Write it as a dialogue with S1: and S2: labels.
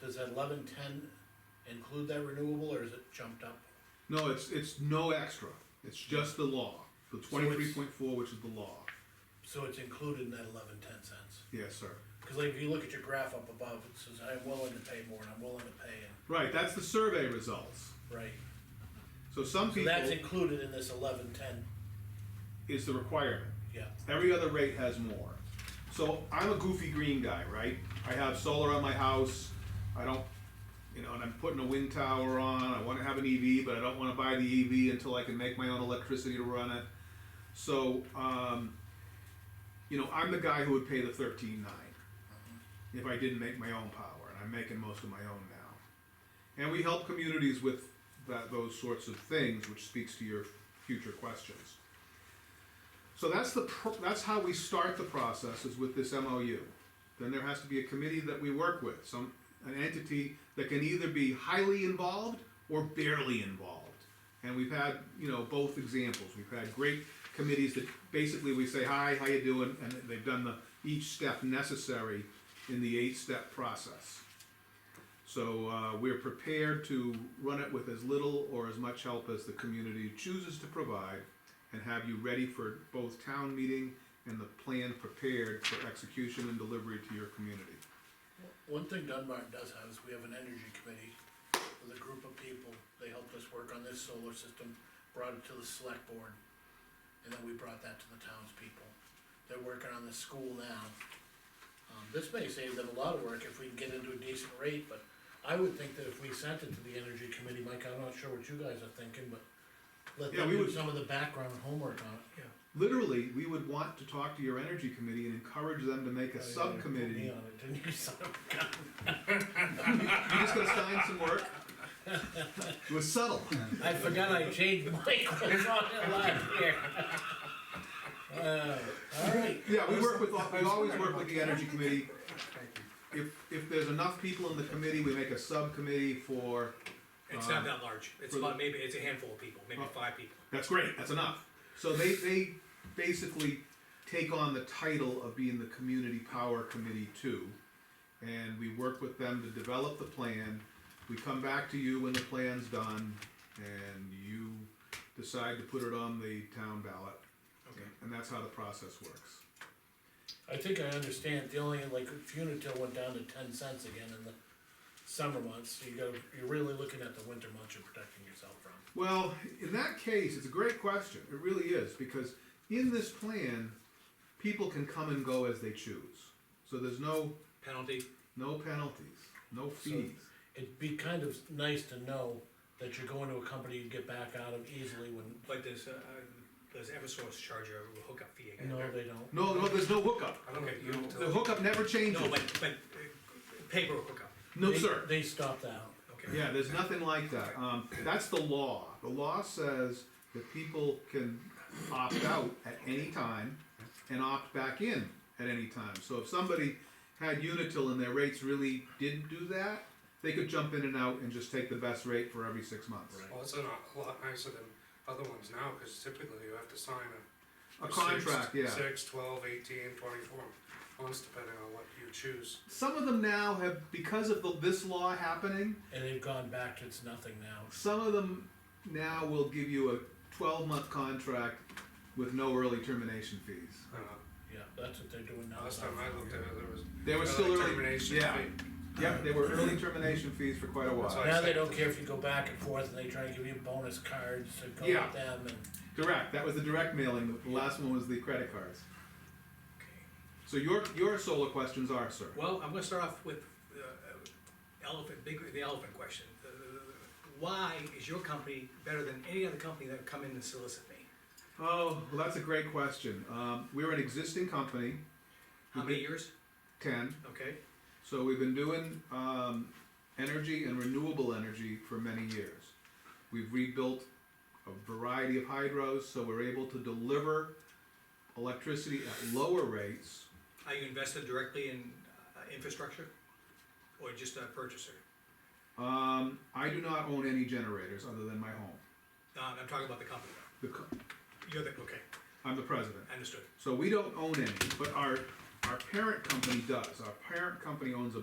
S1: does that eleven ten include that renewable, or is it jumped up?
S2: No, it's, it's no extra, it's just the law,
S1: So
S2: the
S1: it's-
S2: twenty-three point four, which is the law,
S1: So it's included in that eleven ten cents?
S2: yes, sir.
S1: Cause like, if you look at your graph up above, it says, I'm willing to pay more, and I'm willing to pay, and,
S2: Right, that's the survey results,
S1: right?
S2: so some
S1: So
S2: people,
S1: that's included in this eleven ten,
S2: is the requirement.
S1: yeah,
S2: Every other rate has more. So I'm a goofy green guy, right? I have solar on my house. I don't, you know, and I'm putting a wind tower on. I want to have an EV, but I don't want to buy the EV until I can make my own electricity to run it. So, um, you know, I'm the guy who would pay the thirteen nine if I didn't make my own power, and I'm making most of my own now. And we help communities with that, those sorts of things, which speaks to your future questions. So that's the, pro- that's how we start the process, is with this MOU. Then there has to be a committee that we work with, some, an entity that can either be highly involved or barely involved. And we've had, you know, both examples, we've had great committees that basically we say, hi, how you doing? And they've done the, each step necessary in the eight-step process. So, uh, we're prepared to run it with as little or as much help as the community chooses to provide and have you ready for both town meeting and the plan prepared for execution and delivery to your community.
S1: One thing Dunbar does have is we have an energy committee with a group of people, they helped us work on this solar system, brought it to the select board. And then we brought that to the townspeople, they're working on the school now. Um, this may save them a lot of work if we can get into a decent rate, but I would think that if we sent it to the energy committee, Mike, I'm not sure what you guys are thinking, but. Let
S2: Yeah,
S1: them
S2: we
S1: do
S2: would-
S1: some of the background homework on it, yeah.
S2: Literally, we would want to talk to your energy committee and encourage them to make a
S1: Put me
S2: subcommittee.
S1: on it, didn't you, son of a gun?
S2: I'm just gonna sign some work. It was subtle.
S1: I forgot I changed Mike was on it last year. Uh, Alright,
S2: Yeah, we work with, we always work with the energy committee. If, if there's enough people in the committee, we make a subcommittee for,
S3: It's not that large, it's
S2: for
S3: about, maybe, it's a handful of people, maybe
S2: Oh.
S3: five people.
S2: that's great, that's enough. So they, they basically take on the title of being the Community Power Committee too. And we work with them to develop the plan. We come back to you when the plan's done and you decide to put it on the town ballot.
S3: Okay.
S2: And that's how the process works.
S1: I think I understand, the only, like, if Unitil went down to ten cents again in the summer months, so you go, you're really looking at the winter months you're protecting yourself from.
S2: Well, in that case, it's a great question. It really is, because in this plan, people can come and go as they choose. So there's no,
S3: Penalty,
S2: no penalties, no fees.
S1: It'd be kind of nice to know that you're going to a company you can get back out of easily when,
S3: but does, uh, does Eversource charge you a hookup fee again?
S1: no, they don't.
S2: No, no, there's no hookup.
S3: Okay, you
S2: The hookup never changes.
S3: no, but, but uh, paper hookup,
S2: No,
S1: They-
S2: sir.
S1: They stopped that out.
S3: okay.
S2: Yeah, there's nothing like that. Um, that's the law. The law says that people can opt out at any time and opt back in at any time. So if somebody had Unitil and their rates really didn't do that, they could jump in and out and just take the best rate for every six months.
S1: Right.
S4: Well, it's a lot, a lot nicer than other ones now, cause typically you have to sign a.
S2: A contract, yeah.
S4: six- Six, twelve, eighteen, twenty-four months, depending on what you choose.
S2: Some of them now have, because of the, this law happening,
S1: And they've gone back to it's nothing now.
S2: some of them now will give you a twelve-month contract with no early termination fees.
S4: Uh,
S1: Yeah, that's what they're doing now.
S4: Last time I looked at it, there was.
S2: They were
S4: early
S2: still early-
S4: Termination
S2: yeah.
S4: fee.
S2: Yep, they were early termination fees for quite a while.
S4: That's why I
S1: Now they
S4: said-
S1: don't care if you go back and forth and they try to give you bonus cards to go
S2: Yeah.
S1: with them and.
S2: Direct. That was the direct mailing. The last one was the credit cards.
S3: Okay.
S2: So your your solar questions are, sir.
S3: Well, I'm gonna start off with the elephant, big, the elephant question. The- the- the- Why is your company better than any other company that come in and solicit me?
S2: Oh, well, that's a great question. Um, we're an existing company,
S3: How many years?
S2: ten.
S3: Okay,
S2: So we've been doing um, energy and renewable energy for many years. We've rebuilt a variety of hydros, so we're able to deliver electricity at lower rates.
S3: are you invested directly in uh, infrastructure? Or just a purchaser?
S2: Um, I do not own any generators other than my home.
S3: No, I'm talking about the company.
S2: The, co-
S3: You're the, okay,
S2: I'm the president.
S3: understood.
S2: So we don't own any, but our, our parent company does. Our parent company owns a